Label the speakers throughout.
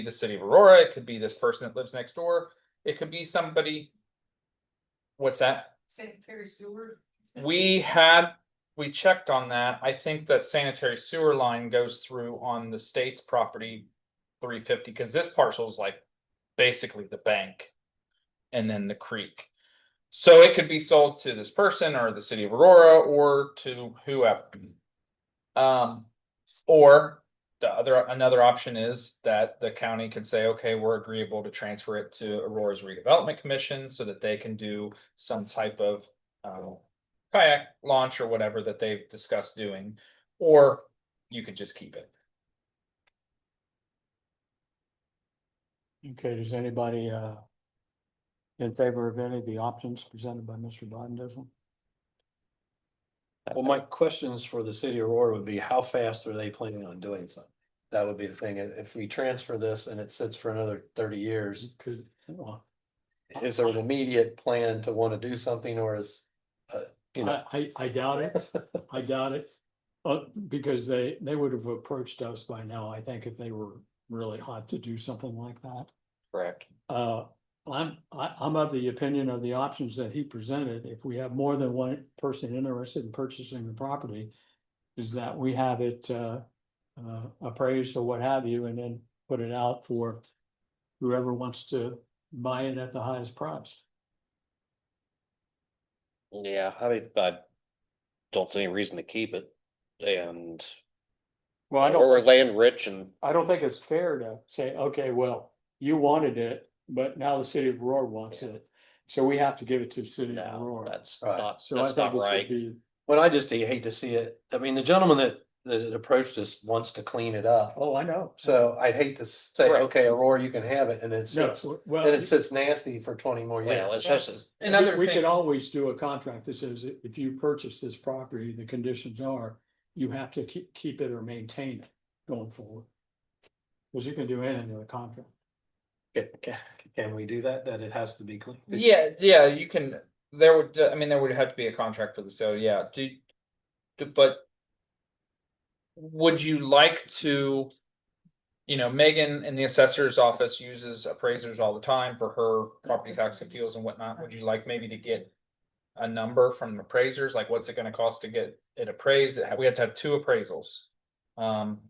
Speaker 1: be the city of Aurora, it could be this person that lives next door, it could be somebody. What's that?
Speaker 2: Sanitary sewer.
Speaker 1: We had, we checked on that. I think that sanitary sewer line goes through on the state's property. Three fifty, cause this parcel is like basically the bank. And then the creek. So it could be sold to this person or the city of Aurora or to whoever. Um, or the other, another option is that the county can say, okay, we're agreeable to transfer it to Aurora's redevelopment commission so that they can do some type of. Um, kayak launch or whatever that they've discussed doing, or you could just keep it.
Speaker 3: Okay, does anybody uh in favor of any of the options presented by Mr. Don
Speaker 4: Well, my questions for the city of Aurora would be how fast are they planning on doing something? That would be the thing. If if we transfer this and it sits for another thirty years,
Speaker 3: Could,
Speaker 4: is there an immediate plan to want to do something or is? Uh, you know,
Speaker 3: I, I, I doubt it. I doubt it. Uh, because they, they would have approached us by now, I think, if they were really hot to do something like that.
Speaker 4: correct.
Speaker 3: Uh, I'm, I, I'm of the opinion of the options that he presented, if we have more than one person interested in purchasing the property. Is that we have it, uh, uh, appraised or what have you, and then put it out for. Whoever wants to buy it at the highest price.
Speaker 5: Yeah, I mean, I don't see any reason to keep it and
Speaker 3: Well,
Speaker 5: or we're land rich and
Speaker 3: I don't think it's fair to say, okay, well, you wanted it, but now the city of Aurora wants it. So we have to give it to the city of
Speaker 5: no,
Speaker 3: Aurora.
Speaker 5: that's
Speaker 4: Right.
Speaker 5: not,
Speaker 3: So I
Speaker 5: that's
Speaker 3: think
Speaker 5: not
Speaker 3: it's gonna
Speaker 5: right.
Speaker 3: be,
Speaker 4: Well, I just hate to see it. I mean, the gentleman that that approached us wants to clean it up.
Speaker 3: oh, I know.
Speaker 4: So I'd hate to say,
Speaker 5: Right.
Speaker 4: okay, Aurora, you can have it and it
Speaker 3: No,
Speaker 4: sits,
Speaker 3: well.
Speaker 4: and it sits nasty for twenty more
Speaker 5: Well,
Speaker 4: years.
Speaker 5: it's just,
Speaker 1: Another
Speaker 3: We we could
Speaker 1: thing,
Speaker 3: always do a contract that says i- if you purchase this property, the conditions are you have to keep, keep it or maintain it going forward. Cause you can do anything with a contract.
Speaker 4: Can, can we do that? That it has to be clean?
Speaker 1: yeah, yeah, you can, there would, I mean, there would have to be a contract for the sale, yeah, do. do- But. Would you like to? You know, Megan in the assessor's office uses appraisers all the time for her property tax appeals and whatnot, would you like maybe to get? A number from appraisers, like what's it gonna cost to get it appraised, It ha- we have to have two appraisals. Um,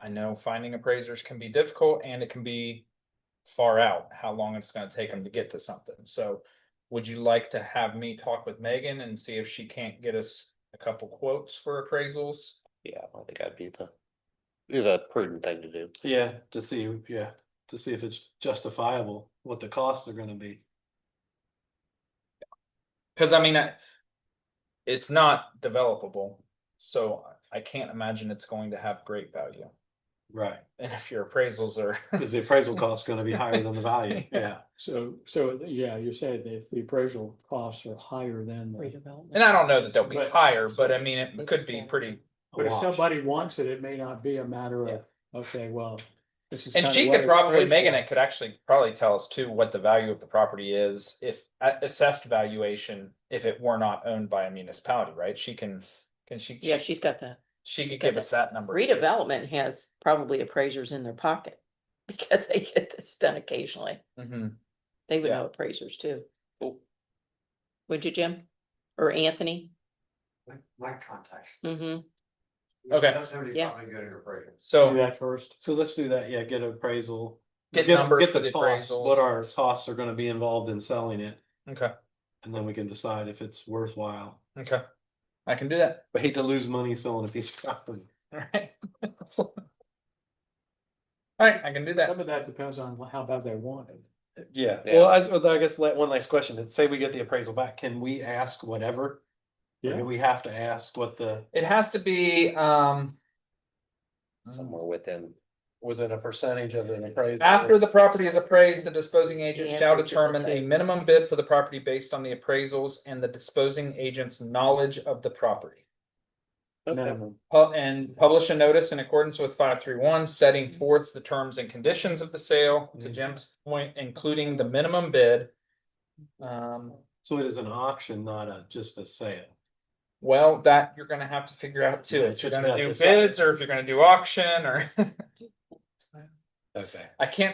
Speaker 1: I know finding appraisers can be difficult and it can be far out, how long it's gonna take them to get to something, so. Would you like to have me talk with Megan and see if she can't get us a couple quotes for appraisals?
Speaker 5: yeah, I think that'd be the, be the prudent thing to do.
Speaker 6: Yeah, to see, yeah, to see if it's justifiable, what the costs are gonna be.
Speaker 1: Cause I mean, I. It's not developable, so I can't imagine it's going to have great value,
Speaker 6: Right.
Speaker 1: and if your appraisals are.
Speaker 6: Cause the appraisal cost's gonna be higher than the value, yeah.
Speaker 3: So, so, yeah, you said if the appraisal costs are higher than, the-
Speaker 1: And I don't know that they'll be
Speaker 3: But-
Speaker 1: higher, but I mean, it could be pretty,
Speaker 6: a
Speaker 3: but if
Speaker 6: wash.
Speaker 3: somebody wants it, it may not be a matter
Speaker 1: Yeah.
Speaker 3: of, okay, well. this is
Speaker 1: and
Speaker 3: kinda
Speaker 1: she
Speaker 3: what
Speaker 1: could probably,
Speaker 3: appraised
Speaker 1: Megan,
Speaker 3: for.
Speaker 1: it could actually probably tell us too, what the value of the property is, if a- assessed valuation. If it were not owned by a municipality, right, she can, can she?
Speaker 7: Yeah, she's got the
Speaker 1: She could
Speaker 7: got
Speaker 1: give us that number. too.
Speaker 7: redevelopment has probably appraisers in their pocket. Because they get this done occasionally.
Speaker 1: Mhm.
Speaker 7: They would
Speaker 1: Yeah.
Speaker 7: know appraisers too. Would you, Jim? Or Anthony?
Speaker 4: My contacts.
Speaker 7: Mm-hmm.
Speaker 1: Okay.
Speaker 7: Yeah.
Speaker 3: Do
Speaker 1: So
Speaker 3: that first.
Speaker 6: So let's do that, yeah, get appraisal.
Speaker 1: Get
Speaker 6: the-
Speaker 1: numbers
Speaker 6: get
Speaker 1: for
Speaker 6: the
Speaker 1: the
Speaker 6: costs,
Speaker 1: appraisal.
Speaker 6: What our costs are gonna be involved in selling it,
Speaker 1: okay,
Speaker 6: and then we can decide if it's worthwhile.
Speaker 1: okay, I can do that.
Speaker 6: I hate to lose money selling a piece of property.
Speaker 1: All right. All right, I can do that.
Speaker 3: Some of that depends on how bad they want it.
Speaker 6: Yeah,
Speaker 5: Yeah.
Speaker 6: well, I, s- I guess la- one last question, and say we get the appraisal back, can we ask whatever? Or
Speaker 3: Yeah.
Speaker 6: Do we have to ask what the,
Speaker 1: It has to be um
Speaker 3: Mm.
Speaker 5: Somewhere within,
Speaker 4: Within a percentage of an appraisal.
Speaker 1: after the property is appraised, the disposing agent
Speaker 7: Yeah,
Speaker 1: shall
Speaker 7: we did
Speaker 1: determine a
Speaker 7: okay.
Speaker 1: minimum bid for the property based on the appraisals and the disposing agent's knowledge of the property.
Speaker 3: Minimum.
Speaker 1: Pu- and publish a notice in accordance with five three one, setting forth the terms and conditions of the sale, to Jim's point, including the minimum bid. Um,
Speaker 6: so it is an auction, not a, just a sale.
Speaker 1: Well, that you're gonna have to figure out too,
Speaker 6: Yeah,
Speaker 1: if you're
Speaker 6: just
Speaker 1: gonna
Speaker 6: about
Speaker 1: do
Speaker 6: this.
Speaker 1: bids or if you're gonna do auction or.
Speaker 4: Okay.
Speaker 1: I can't